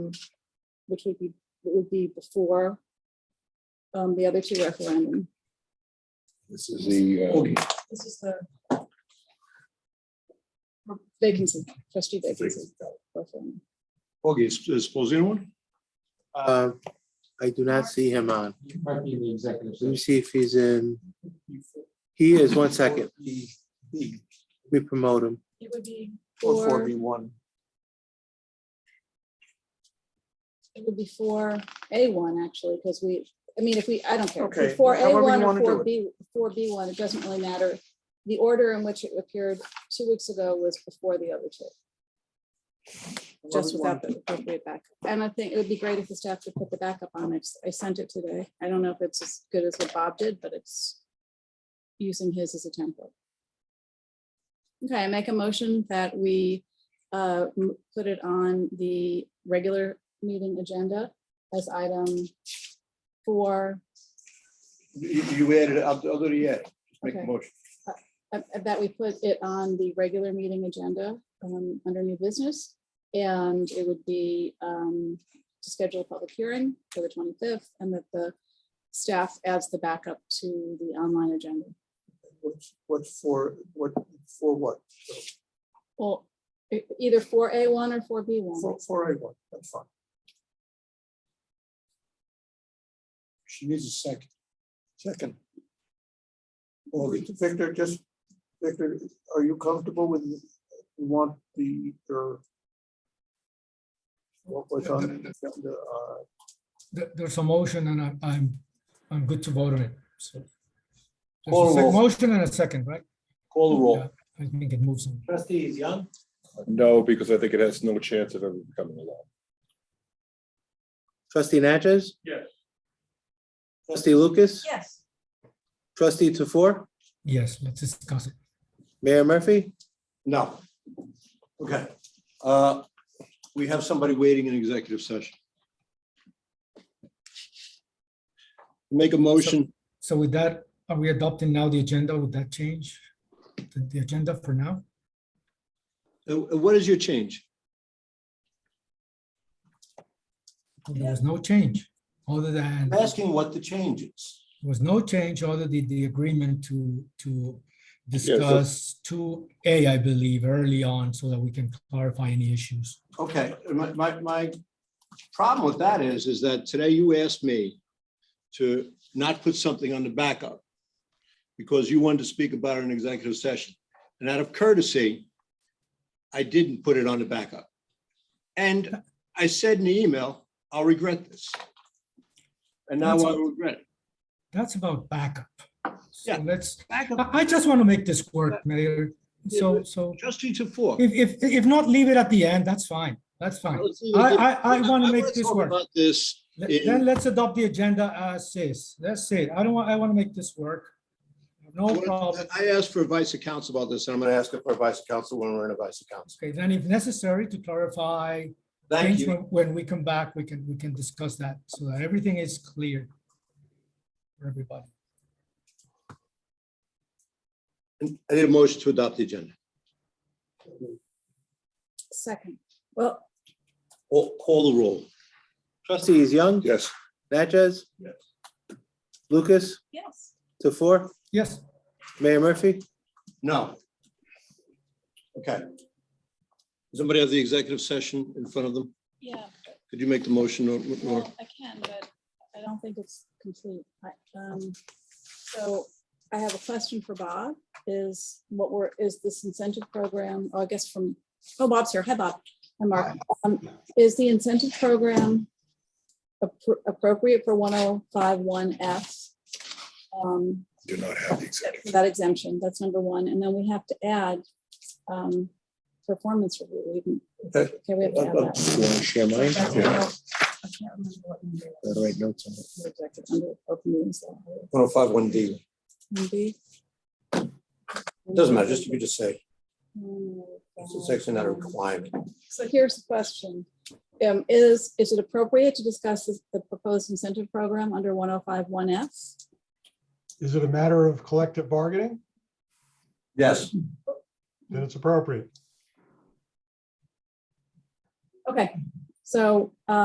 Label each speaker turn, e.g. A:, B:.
A: which would be, would be before um, the other two referendum.
B: This is the, uh,
C: Okay,
A: This is the vacancy, trustee vacancy. referendum.
C: okay, is is Sposino on?
D: Uh, I do not see him on.
C: You might be in the executive
D: Let me see if he's in. He is, one second. We promote him.
A: It would be
C: Or four
A: for,
C: B one.
A: it would be for A one actually, because we, I mean, if we, I don't care.
C: Okay,
A: For A
C: however you
A: one or
C: wanna do
A: for
C: it.
A: B, for B one, it doesn't really matter. The order in which it appeared two weeks ago was before the other two. just without the appropriate backup. And I think it would be great if the staff could put the backup on it. I sent it today. I don't know if it's as good as what Bob did, but it's using his as a template. Okay, I make a motion that we uh, m- put it on the regular meeting agenda as item four.
C: You you added, I'll, I'll do the add, just make a
A: Okay.
C: motion.
A: uh, uh, that we put it on the regular meeting agenda um, under new business. And it would be um, to schedule a public hearing for the 25th and that the staff adds the backup to the online agenda.
C: What for, what, for what?
A: Well, e- either for A1 or for B1.
C: for A one, that's fine. She needs a second. Second. Victor, just, Victor, are you comfortable with, you want the, your what was on the, uh,
E: There- There's a motion and I- I'm, I'm good to vote on it, so.
C: Call
E: There's a sec-
C: roll.
E: motion and a second, right?
C: Call the roll.
E: Yeah, I think it moves on.
C: Trustees Young?
B: no, because I think it has no chance of ever becoming a law.
D: Trustee Natchez?
C: Yes.
D: Trustee Lucas?
F: Yes.
D: Trustee Tofor?
E: Yes, let's discuss it.
D: Mayor Murphy?
C: No. Okay. Uh, We have somebody waiting in executive session. Make a motion.
E: So with that, are we adopting now the agenda? Would that change the, the agenda for now?
C: Uh, What is your change?
E: There was no change, other than,
C: I'm
E: there
C: asking what the change is.
E: was no change, other than the agreement to, to
B: so-
E: discuss two A, I believe, early on, so that we can clarify any issues.
C: Okay, my, my, my problem with that is, is that today you asked me to not put something on the backup because you wanted to speak about it in executive session. And out of courtesy, I didn't put it on the backup. And I said in the email, I'll regret this. And now I regret it.
E: That's about backup. So
C: Yeah.
E: let's,
C: Backup,
E: I, I just want to make this work, Mayor. So, so
C: trustee to four.
E: if, if, if not, leave it at the end. That's fine. That's fine. I- I- I wanna make this work.
C: About this,
E: Let- Then let's adopt the agenda as is. That's it. I don't want, I want to make this work. No problem.
C: I asked for advice of counsel about this, and I'm gonna ask for advice of counsel when we're in advice of counsel.
E: Okay, then if necessary to clarify
C: Thank
E: things,
C: you.
E: when when we come back, we can, we can discuss that so that everything is clear for everybody.
C: I need a motion to adopt the agenda.
A: Second, well,
C: Call, call the roll.
D: Trustees Young?
B: Yes,
D: Natchez?
C: Yes.
D: Lucas?
F: Yes.
D: Tofor?
E: Yes,
D: Mayor Murphy?
C: No. Okay. Does Somebody have the executive session in front of them?
A: yeah,
C: Could you make the motion or, or-
A: well, I can, but I don't think it's complete. I- um, So I have a question for Bob, is what we're, is this incentive program, oh, I guess from, oh, Bob's here. Hi, Bob. Hi, Mark. Um, Is the incentive program appro- appropriate for 1051F? Um,
B: do not have the executive.
A: for that exemption, that's number one. And then we have to add um, performance review. We can-
B: Okay. Uh,
A: Okay, we have to add that.
D: share mine?
B: Yeah.
D: Write notes on it.
A: Rejected under open meetings law.
C: One oh five, one D.
A: Maybe.
C: Doesn't matter, just, you could just say, it's a
A: It's
C: section not a requirement.
A: Hmm, um, So here's the question. Um, Is, is it appropriate to discuss this- the proposed incentive program under 1051F?
G: Is it a matter of collective bargaining?
C: Yes.
G: Then it's appropriate.
A: Okay, So,